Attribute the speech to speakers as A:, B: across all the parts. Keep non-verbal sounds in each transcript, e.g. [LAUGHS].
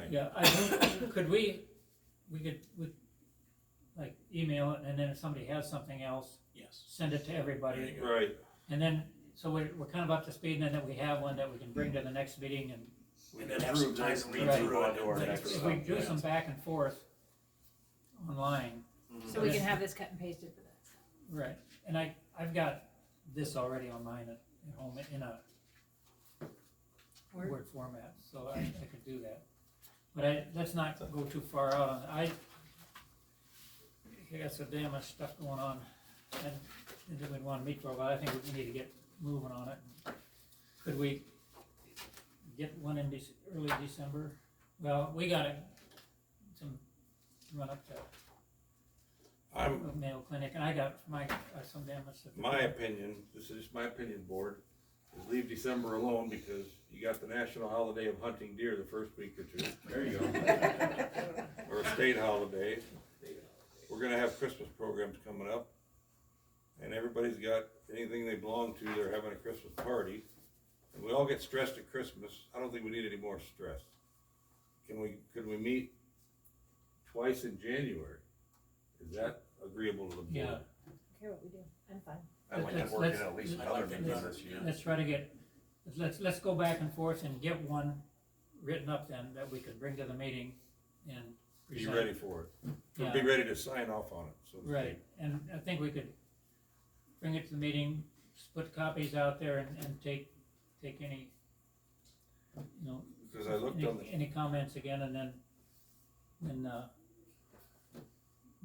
A: thing.
B: Yeah, I think, [COUGHS] could we, we could, we, like, email it, and then if somebody has something else,
C: [LAUGHS] Yes.
B: send it to
C: There
B: everybody.
C: you go.
A: Right,
B: And then, so we're, we're kind of up to speed, and then we have one that we can bring to the next meeting, and
A: we
C: And
A: can
C: then have some
A: prove
C: time
A: this,
C: to
A: and
C: read
A: then
C: through
A: move on
C: it
A: to our
C: and
A: next
C: things.
B: if
A: one.
B: we do
C: Yeah.
B: some back and forth online,
D: So we can have this cut and pasted for this.
B: right, and I, I've got this already on mine at, at home in a
D: Word?
B: Word format, so I, I could do that. But I, let's not go too far out on, I, I got so damn much stuff going on, and, and didn't wanna meet for a while, I think we need to get moving on it. Could we get one in Dec- early December? Well, we got it, some, run up to
A: I'm,
B: a Mayo Clinic, and I got my, uh, some damn much. stuff.
A: my opinion, this is just my opinion, board, is leave December alone because you got the national holiday of hunting deer the first week or two. There
C: [LAUGHS]
A: you go. Or a state holiday. We're gonna have Christmas programs coming up. And everybody's got anything they belong to, they're having a Christmas party. And we all get stressed at Christmas. I don't think we need any more stress. Can we, could we meet twice in January? Is that agreeable to the board?
B: Yeah.
D: Care what we do, I'm fine.
E: I like
B: Let's-
E: to work in
B: let's-
E: at least
B: let's-
E: another
C: let's-
E: meeting this year.
B: Let's try to get, let's, let's go back and forth and get one written up then that we could bring to the meeting and.
A: be
B: present.
A: ready for it, We'll be
B: Yeah,
A: ready to sign off on it, so. to speak.
B: right, and I think we could bring it to the meeting, split copies out there and, and take, take any, you know,
A: Cause I looked on
B: any, any comments again and then, and, uh,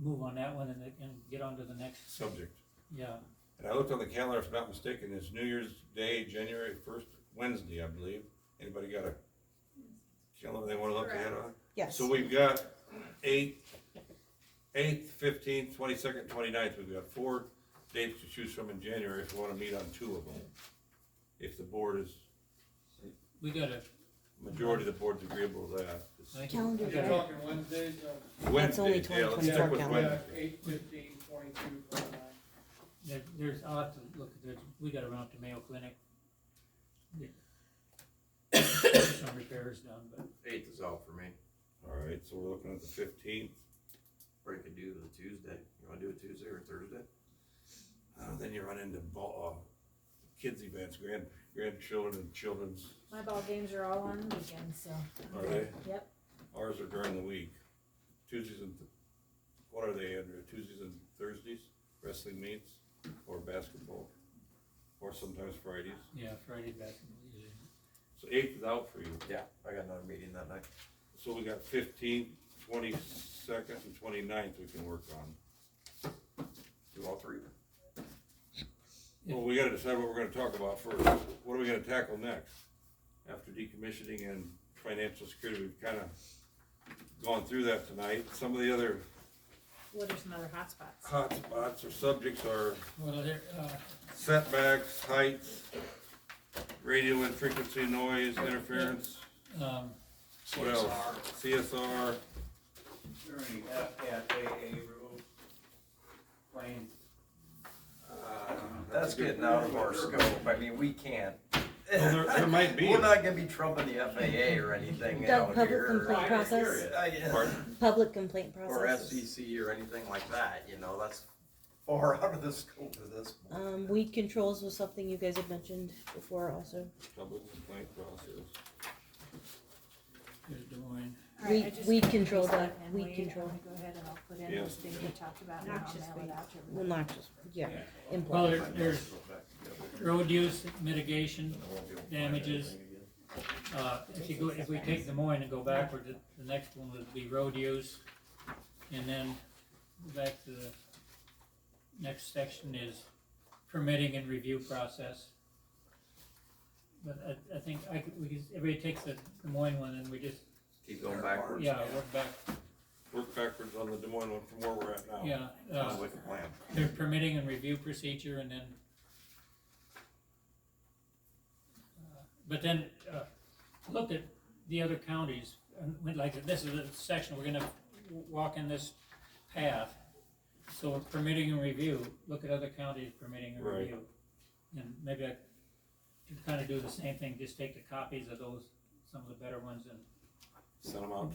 B: move on that one and, then- and get on to the next,
A: the subject,
B: yeah,
A: and I looked on the calendar, if I'm not mistaken, it's New Year's Day, January first, Wednesday, I believe, anybody got a calendar they wanna look ahead on?
F: Yes.
A: So we've got eight, eighth, fifteenth, twenty-second, twenty-ninth, we've got four dates to choose from in January if we wanna meet on two of them. If the board is,
B: we gotta.
A: majority of the board's agreeable to that.
B: I think-
F: Calendar,
G: You're
B: Okay.
F: right?
G: talking Wednesdays, uh,
F: That's only
A: Wednesday, yeah, let's
F: 2024
A: stick with
F: calendar.
G: yeah,
A: Wednesday.
G: eight fifteen, twenty-two, twenty-nine.
B: There, there's, I'll have to look, at there's, we gotta run up to Mayo Clinic. Get Some repairs done, but
E: Eighth is out for me,
A: Alright, so we're looking at the fifteenth.
E: or you could do the Tuesday, you wanna do it Tuesday or Thursday?
A: Uh, then you run into ball, uh, kids events, grand, grandchildren and children's,
D: My ball games are all on the weekend, so.
A: are they?
D: Yep.
A: Ours are during the week. Tuesdays and, th- what are they, Andrew? Tuesdays and Thursdays, wrestling meets or basketball? Or sometimes Fridays.
B: yeah, Friday basketball usually.
A: So eighth is out for you.
E: Yeah, I got another meeting that night.
A: So we got fifteenth, twenty-second and twenty-ninth we can work on.
E: Do all three?
A: Well, we gotta decide what we're gonna talk about first. What are we gonna tackle next? After decommissioning and financial security, we've kinda gone through that tonight. Some of the other
D: What are some other hotspots?
A: hot spots or subjects are
B: Well, there, uh,
A: setbacks, heights, radio and frequency noise, interference,
B: um,
A: what else? CSR,
H: there any FFAA rules? Plain
E: Uh, That's getting out of our scope, I mean, we can't.
A: Well, there- there might be.
E: We're not gonna be trumping the FAA or anything
F: Doug,
E: out
F: public
E: here.
F: complaint process?
E: Uh, yeah.
A: Pardon?
F: Public complaint
E: Or
F: process.
E: SEC or anything like that, you know, that's far [LAUGHS] out of the scope of this.
F: Um, weed controls was something you guys had mentioned before also.
A: public complaint process.
B: there's Des Moines.
D: All right, I
F: Weed-
D: just cut
F: weed
D: and
F: control,
D: paste
F: Doc,
D: it, and
F: weed
D: Wade,
F: control.
D: I'm gonna Go ahead and I'll put in
A: Yeah.
D: those things we talked about and I'll
F: Noxious
D: mail it
F: weed.
D: out to everybody.
F: Well, not just, yeah,
B: Well,
F: impact.
B: there, there's road use mitigation, damages. uh, if you go, if we take Des Moines and go backward, the, the next one would be road use. And then go back to the next section is permitting and review process. But I, I think I could, we could, everybody takes the Des Moines one and we just,
E: Keep going backwards.
B: yeah, work back,
A: Work backwards on the Des Moines one from where we're at now.
B: yeah.
E: Sounds
B: Uh,
E: like a plan.
B: their permitting and review procedure and then. uh, But then, uh, look at the other counties, and we- like, this is the section, we're gonna w- walk in this path. So permitting and review, look at other counties permitting and
A: Right.
B: review. And maybe I could kinda do the same thing, just take the copies of those, some of the better ones and
A: Send them out